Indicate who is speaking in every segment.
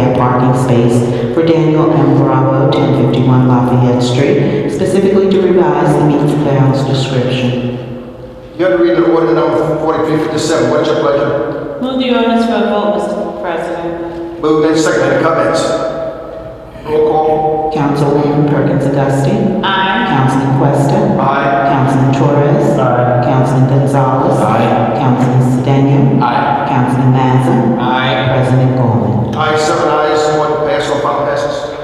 Speaker 1: office space for Daniel M. Bravo, 1051 Lafayette Street, specifically to revise the meets and bounds description.
Speaker 2: You have to read the order number forty-three fifty-seven. What's your pleasure?
Speaker 3: Move the ordinance for a vote, Mr. President.
Speaker 2: Moved and seconded. Comments? Roll call.
Speaker 1: Councilwoman Perkins Dusting.
Speaker 3: Aye.
Speaker 1: Councilman Questa.
Speaker 2: Aye.
Speaker 1: Councilman Torres.
Speaker 2: Aye.
Speaker 1: Councilman Gonzalez.
Speaker 2: Aye.
Speaker 1: Councilman Sedan.
Speaker 2: Aye.
Speaker 1: Councilman Mazza.
Speaker 2: Aye.
Speaker 1: President Gollman.
Speaker 2: Aye, seven ayes, one pass, on final passes.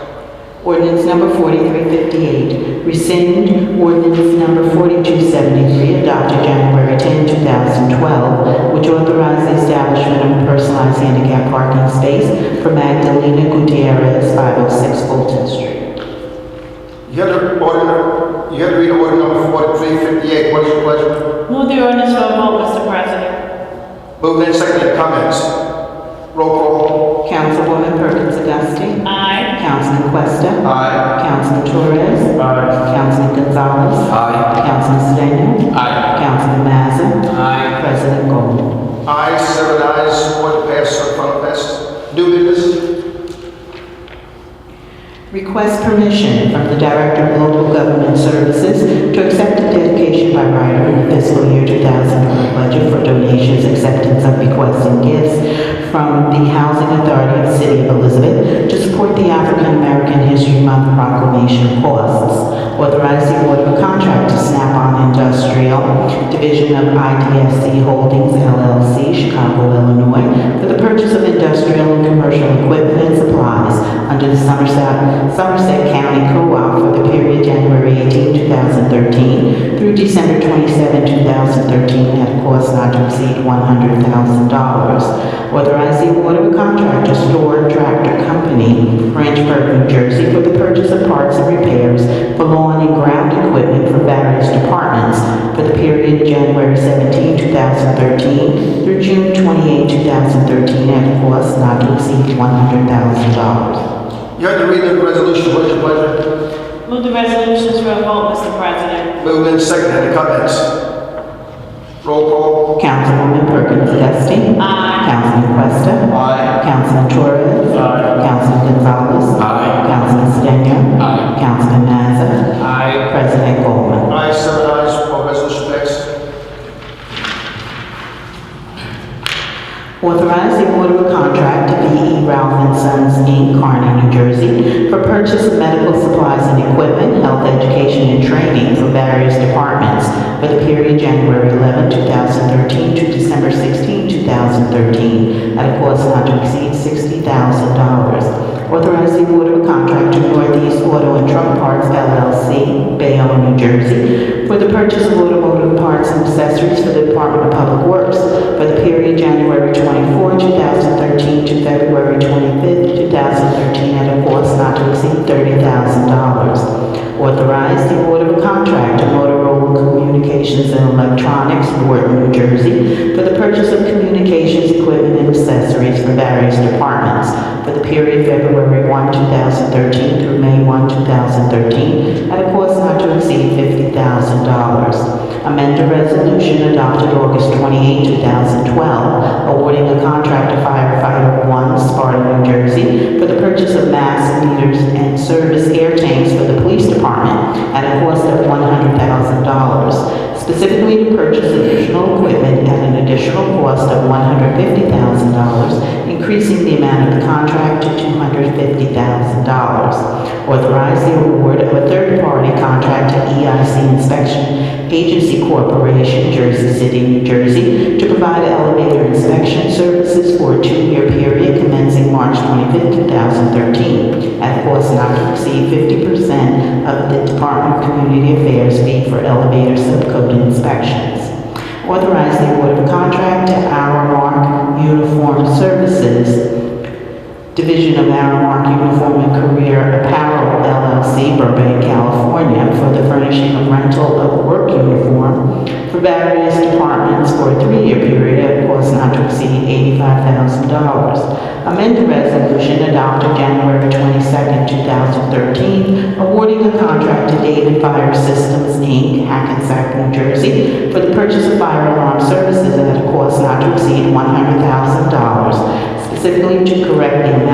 Speaker 1: Ordinance number 4358, rescind ordinance number 4273 adopted January 10, 2012, which authorized the establishment of a personalized handicap parking space for Magdalena Gutierrez, 506 Fulton Street.
Speaker 2: You have to order, you have to read order number forty-three fifty-eight. What is your pleasure?
Speaker 3: Move the ordinance for a vote, Mr. President.
Speaker 2: Moved and seconded. Comments? Roll call.
Speaker 1: Councilwoman Perkins Augustine.
Speaker 3: Aye.
Speaker 1: Councilman Questa.
Speaker 2: Aye.
Speaker 1: Councilman Torres.
Speaker 2: Aye.
Speaker 1: Councilman Gonzalez.
Speaker 2: Aye.
Speaker 1: Councilman Sedan.
Speaker 2: Aye.
Speaker 1: Councilman Mazza.
Speaker 2: Aye.
Speaker 1: President Gold.
Speaker 2: Aye, seven ayes, one pass, on final passes. New business?
Speaker 1: Request permission from the Director of Local Government Services to accept a dedication by writer in the fiscal year 2020 budget for donations, acceptance of bequests and gifts from the Housing Authority of the City of Elizabeth to support the African American History Month proclamation costs. Authorize the award of a contract to Snap-on Industrial Division of IDFC Holdings LLC, Chicago, Illinois, for the purchase of industrial and commercial equipment and supplies under the Somerset, Somerset County Co-op for the period January 18, 2013 through December 27, 2013 at a cost not to exceed $100,000. Authorize the award of a contract to Store Tractor Company, Frenchburg, New Jersey, for the purchase of parts and repairs for lawn and ground equipment for various departments for the period January 17, 2013 through June 28, 2013 at a cost not to exceed $100,000.
Speaker 2: You have to read the resolution. What is your pleasure?
Speaker 3: Move the resolutions for a vote, Mr. President.
Speaker 2: Moved and seconded. Comments? Roll call.
Speaker 1: Councilwoman Perkins Dusting.
Speaker 3: Aye.
Speaker 1: Councilman Questa.
Speaker 2: Aye.
Speaker 1: Councilman Torres.
Speaker 2: Aye.
Speaker 1: Councilman Gonzalez.
Speaker 2: Aye.
Speaker 1: Councilman Sedan.
Speaker 2: Aye.
Speaker 1: Councilman Mazza.
Speaker 2: Aye.
Speaker 1: President Goldman.
Speaker 2: Aye, seven ayes, one resolution passes.
Speaker 1: Authorize the award of a contract to B.E. Ralph and Sons, Inc., Kearney, New Jersey, for purchase of medical supplies and equipment, health education, and training for various departments for the period January 11, 2013 to December 16, 2013, at a cost not to exceed $60,000. Authorize the award of a contract to Northeast Auto and Truck Parts LLC, Bayonne, New Jersey, for the purchase of automotive parts and accessories for the Department of Public Works for the period January 24, 2013 to February 25, 2013, at a cost not to exceed $30,000. Authorize the award of a contract to Motorola Communications and Electronics, Newark, New Jersey, for the purchase of communications equipment and accessories for various departments for the period February 1, 2013 through May 1, 2013, at a cost not to exceed $50,000. Amend a resolution adopted August 28, 2012, awarding a contract to firefighter 1 Sparta, New Jersey, for the purchase of mass meters and service air tanks for the police department at a cost of $100,000, specifically to purchase additional equipment at an additional cost of $150,000, increasing the amount of the contract to $250,000. Authorize the award of a third-party contract to EIC Inspection Agency Corporation, Jersey City, New Jersey, to provide elevator inspection services for a two-year period commencing March 25, 2013, at a cost not to exceed 50% of the Department of Community Affairs fee for elevator subcode inspections. Authorize the award of contract to Aramark Uniform Services, Division of Aramark Uniform and Career Apparel LLC, Burbank, California, for the furnishing of rental of work uniform for various departments for a three-year period at a cost not to exceed $85,000. Amend the resolution adopted January 22, 2013, awarding a contract to David Fire Systems, Inc., Hackensack, New Jersey, for the purchase of fire alarm services at a cost not to exceed $100,000, specifically to correct the amount